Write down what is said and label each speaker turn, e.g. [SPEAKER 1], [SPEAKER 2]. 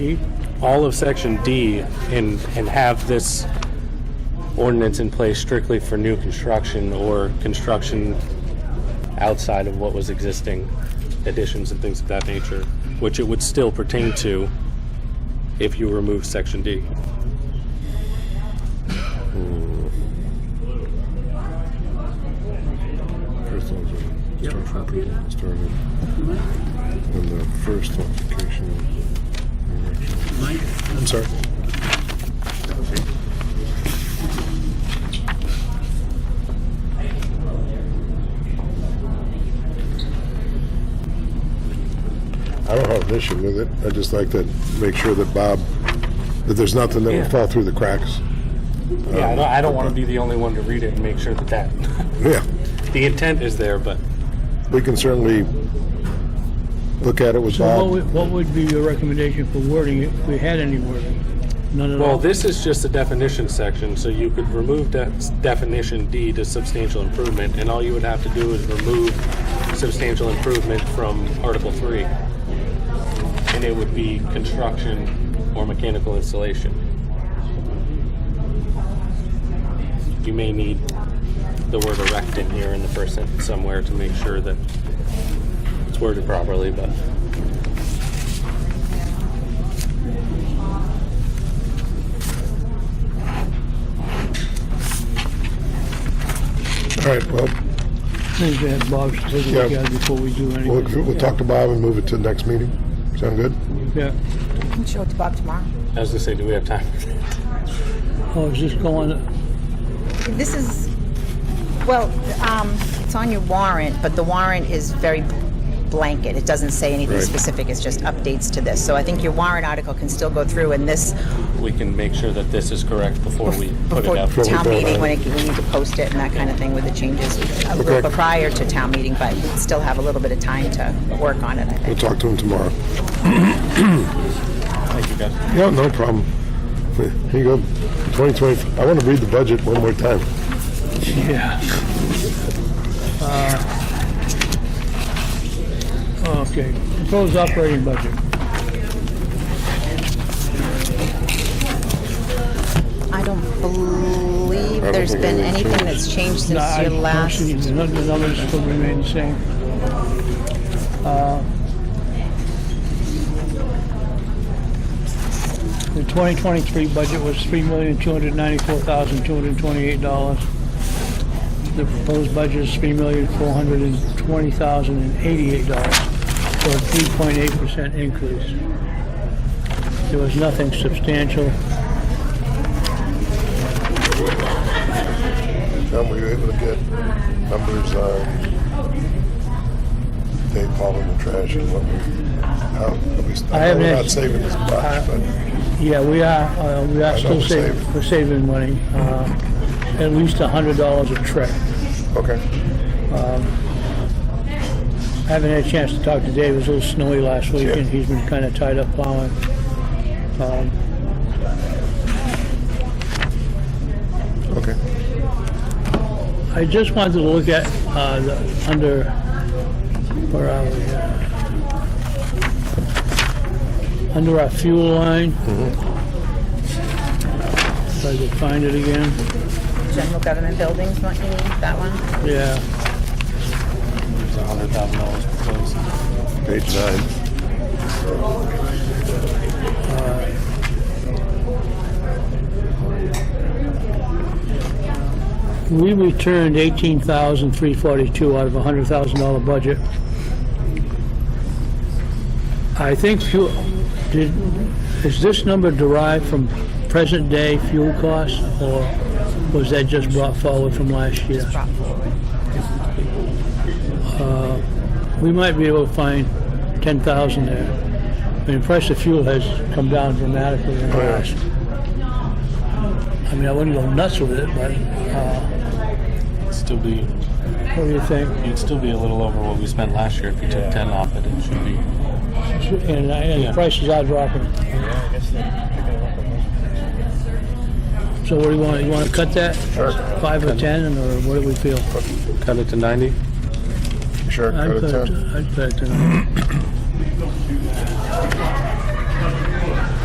[SPEAKER 1] all of section D and, and have this ordinance in place strictly for new construction or construction outside of what was existing, additions and things of that nature, which it would still pertain to if you remove section D.
[SPEAKER 2] First one's a construction project that started. And the first application. I'm sorry. I don't have an issue with it. I just like to make sure that Bob, that there's nothing that
[SPEAKER 1] Yeah.
[SPEAKER 2] will fall through the cracks.
[SPEAKER 1] Yeah, I don't, I don't want to be the only one to read it and make sure that that,
[SPEAKER 2] Yeah.
[SPEAKER 1] the intent is there, but
[SPEAKER 2] We can certainly look at it with
[SPEAKER 3] So what
[SPEAKER 2] Bob.
[SPEAKER 3] would, what would be your recommendation for wording if we had any wording? None at
[SPEAKER 1] Well,
[SPEAKER 3] all?
[SPEAKER 1] this is just the definition section, so you could remove de- definition D to substantial improvement, and all you would have to do is remove substantial improvement from Article 3. And it would be construction or mechanical installation. You may need the word erect in here in the first sentence somewhere to make sure that it's worded properly, but
[SPEAKER 2] All right, well,
[SPEAKER 3] Things to have Bob take a look
[SPEAKER 2] Yeah.
[SPEAKER 3] at before we do
[SPEAKER 2] we'll,
[SPEAKER 3] anything.
[SPEAKER 2] we'll talk to Bob and move it to the next meeting. Sound good?
[SPEAKER 3] Yeah.
[SPEAKER 4] can show it to Bob tomorrow.
[SPEAKER 1] I was going to say, do we have time?
[SPEAKER 3] Oh, is this going,
[SPEAKER 4] This is, well, um, it's on your warrant, but the warrant is very blanket. It doesn't say anything
[SPEAKER 2] Right.
[SPEAKER 4] specific. It's just updates to this. So I think your warrant article can still go through, and this
[SPEAKER 1] We can make sure that this is correct before we put
[SPEAKER 4] before
[SPEAKER 1] it out.
[SPEAKER 2] Before we
[SPEAKER 4] town
[SPEAKER 2] vote on
[SPEAKER 4] meeting,
[SPEAKER 2] it.
[SPEAKER 4] when it, we need to post it and that kind of thing with the changes, a little
[SPEAKER 2] Okay.
[SPEAKER 4] bit prior to town meeting, but we still have a little bit of time to work on it. I
[SPEAKER 2] We'll
[SPEAKER 4] think.
[SPEAKER 2] talk to him tomorrow.
[SPEAKER 1] Thank you, guys.
[SPEAKER 2] Yeah, no problem. Here you go. 2020, I want to read the budget one more time.
[SPEAKER 3] yeah. Uh, Okay, proposed operating budget.
[SPEAKER 4] I don't believe
[SPEAKER 2] don't
[SPEAKER 4] there's
[SPEAKER 2] think
[SPEAKER 4] been
[SPEAKER 2] anything's
[SPEAKER 4] anything
[SPEAKER 2] changed.
[SPEAKER 4] that's changed
[SPEAKER 3] No,
[SPEAKER 4] since
[SPEAKER 3] I
[SPEAKER 4] your
[SPEAKER 3] don't
[SPEAKER 4] last.
[SPEAKER 3] see The nu- the numbers still remain the same. Uh, The 2023 budget was $3,294,228. The proposed budget is $3,420,088, so a 3.8% increase. There was nothing substantial.
[SPEAKER 2] Tom, were you able to get numbers on Dave Paul in the trash and what we, how, at least,
[SPEAKER 3] I
[SPEAKER 2] I know
[SPEAKER 3] haven't
[SPEAKER 2] we're
[SPEAKER 3] had-
[SPEAKER 2] not saving this much, but
[SPEAKER 3] Yeah, we are, uh, we are still
[SPEAKER 2] we're
[SPEAKER 3] saving,
[SPEAKER 2] saving.
[SPEAKER 3] we're saving money, uh, at least a hundred dollars a trip.
[SPEAKER 2] okay.
[SPEAKER 3] I haven't had a chance to talk to Dave, it was a little snowy last week
[SPEAKER 2] Yeah.
[SPEAKER 3] and he's been kinda tied up plowing. Um,
[SPEAKER 2] Okay.
[SPEAKER 3] I just wanted to look at, uh, the, under, where are we? uh, Under our fuel line. If I could find it again.
[SPEAKER 4] General government buildings, don't you need that one?
[SPEAKER 3] Yeah,
[SPEAKER 1] It's $100,000 proposed.
[SPEAKER 2] Page nine.
[SPEAKER 3] we returned eighteen thousand three forty-two out of a hundred thousand dollar budget. I think fuel, did, is this number derived from present day fuel costs or was that just brought forward from last year? Uh, We might be able to find ten thousand there. I mean, the price of fuel has come down dramatically in the
[SPEAKER 2] yeah.
[SPEAKER 3] last. I mean, I wouldn't go nuts with it, but, uh,
[SPEAKER 1] Still be,
[SPEAKER 3] what do you think?
[SPEAKER 1] you'd still be a little over what we spent last year if you took ten off it. It should be.
[SPEAKER 3] And, uh, and
[SPEAKER 1] Yeah.
[SPEAKER 3] the prices are dropping. So what do you want, you want to cut that?
[SPEAKER 2] Sure.
[SPEAKER 3] Five or ten, and- or what do we feel?
[SPEAKER 1] Cut it to ninety.
[SPEAKER 2] Sure,
[SPEAKER 3] I'd
[SPEAKER 2] cut it
[SPEAKER 3] put it
[SPEAKER 2] down.
[SPEAKER 3] to- I'd put it to,